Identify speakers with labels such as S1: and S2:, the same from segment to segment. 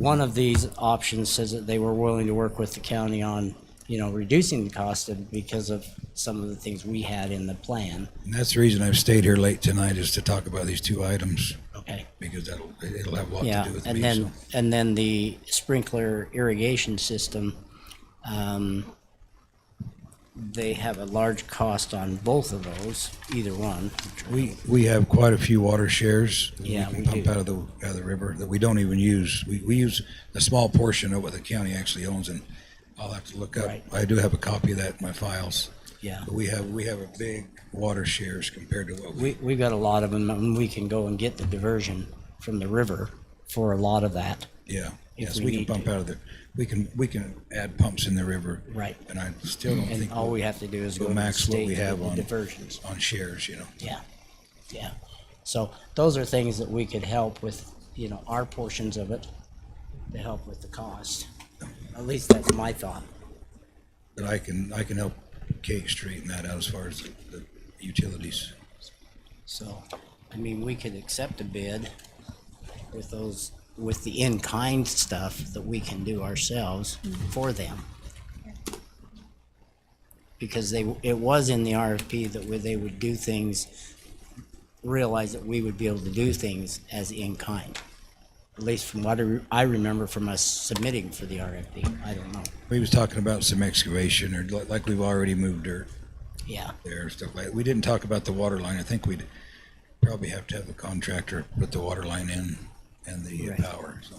S1: One of these options says that they were willing to work with the county on, you know, reducing the cost of- because of some of the things we had in the plan.
S2: And that's the reason I've stayed here late tonight is to talk about these two items
S1: Okay.
S2: because that'll, it'll have a lot to
S1: Yeah,
S2: do with me.
S1: and
S2: so.
S1: then, and then the sprinkler irrigation system, um, they have a large cost on both of those, either one.
S2: We, we have quite a few water shares that
S1: Yeah,
S2: we
S1: we
S2: can pump
S1: do.
S2: out of the, out of the river that we don't even use. We, we use a small portion of what the county actually owns and I'll have to look up.
S1: Right.
S2: I do have a copy of that in my files.
S1: Yeah.
S2: But we have, we have a big water shares compared to what we,
S1: We, we've got a lot of them, and we can go and get the diversion from the river for a lot of that.
S2: yeah. Yes,
S1: we
S2: we can
S1: need
S2: pump out of the, we can, we can add pumps in the river.
S1: Right.
S2: And I still don't
S1: And
S2: think
S1: all
S2: we'll-
S1: we have to do is go
S2: we'll
S1: to the
S2: max what
S1: state
S2: we
S1: and
S2: have
S1: get the
S2: on,
S1: diversions.
S2: on shares, you know.
S1: Yeah, yeah. So those are things that we could help with, you know, our portions of it to help with the cost. At least that's my thought.
S2: But I can, I can help Kate straighten that out as far as the the utilities.
S1: So, I mean, we could accept a bid with those, with the in-kind stuff that we can do ourselves for them. Because they, it was in the RFP that where they would do things, realize that we would be able to do things as in-kind. At least from what I re- I remember from us submitting for the RFP. I don't know.
S2: We was talking about some excavation or li- like we've already moved dirt
S1: Yeah,
S2: there, stuff like, we didn't talk about the water line. I think we'd probably have to have the contractor put the water line in and the uh,
S1: Right.
S2: power, so.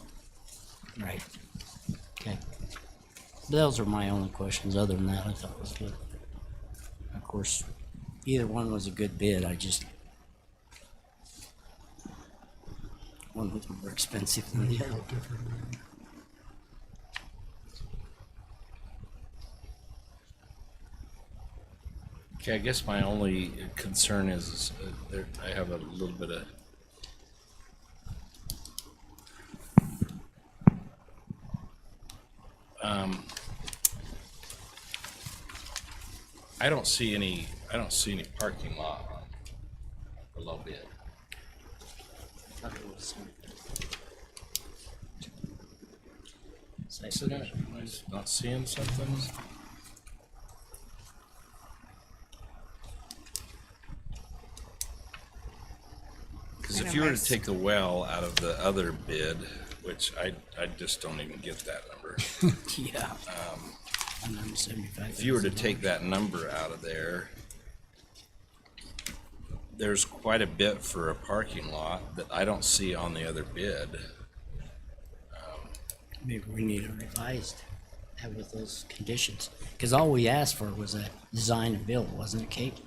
S1: right. Okay. Those are my only questions. Other than that, I thought it was good. Of course, either one was a good bid. I just one was more expensive than the other.
S3: Okay, I guess my only concern is, is uh, there, I have a little bit of. Um, I don't see any, I don't see any parking lot below bid. Is it, am I not seeing something? Cause if you were to take the well out of the other bid, which I, I just don't even get that number.
S1: Yeah. Um, seventy-five.
S3: If you were to take that number out of there, there's quite a bit for a parking lot that I don't see on the other bid.
S1: Maybe we need a revised that with those conditions, because all we asked for was a design and build, wasn't it, Kate?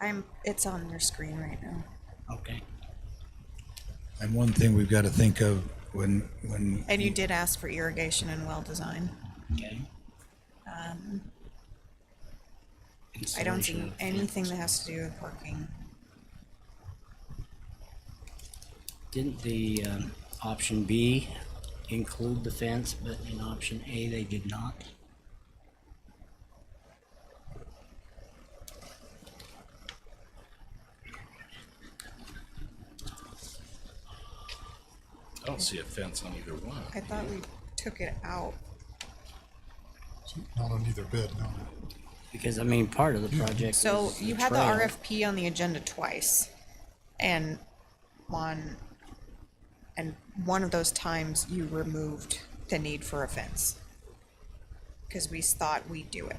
S4: I'm. It's on your screen right now.
S1: Okay.
S2: And one thing we've got to think of when, when,
S4: And you did ask for irrigation and well design.
S1: Okay.
S4: I don't see
S1: Um, Installation of-
S4: anything that has to do with parking.
S1: Didn't the um, option B include the fence, but in option A, they did not?
S3: I don't see a fence on either one.
S4: I thought we took it out.
S5: Not on either bid, no.
S1: Because, I mean, part of the project
S4: So
S1: was
S4: you had the
S1: trail.
S4: RFP on the agenda twice, and on, and one of those times you removed the need for a fence because we s- thought we'd do it.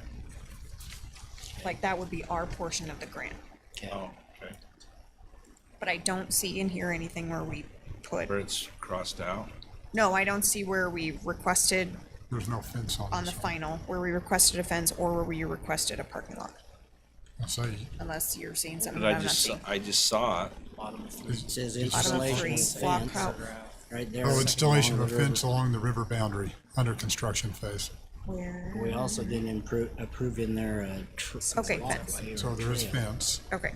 S4: Like that would be our portion of the grant,
S1: Okay.
S3: Oh, okay.
S4: but I don't see in here anything where we put.
S3: Where it's crossed out.
S4: No, I don't see where we requested
S5: There's no fence on this.
S4: on the
S5: one.
S4: final, where we requested a fence or where we requested a parking lot,
S5: I say,
S4: unless you're seeing something
S3: But
S4: that
S3: I
S4: I'm not
S3: just,
S4: seeing.
S3: I just saw it.
S1: Bottom of three. It Says
S4: Bottom of
S1: installation
S4: three,
S1: of
S4: block out,
S1: fence, right there.
S5: oh, installation of
S1: Along the
S5: a
S1: river.
S5: fence along the river boundary, under construction phase.
S4: where,
S1: We also didn't improve, approve in there a. tr-
S4: Okay,
S1: walkway
S4: fence.
S1: or
S5: So there is
S1: trail.
S5: fence,
S4: okay,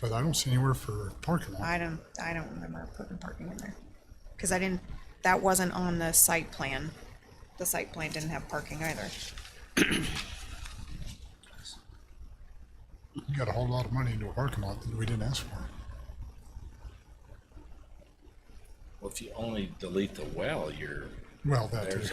S5: but I don't see anywhere for parking lot.
S4: I don't, I don't remember putting parking in there. Cause I didn't, that wasn't on the site plan. The site plan didn't have parking either.
S5: You got a whole lot of money into a parking lot that we didn't ask for.
S3: Well, if you only delete the well, you're
S6: Well, that too.
S5: There's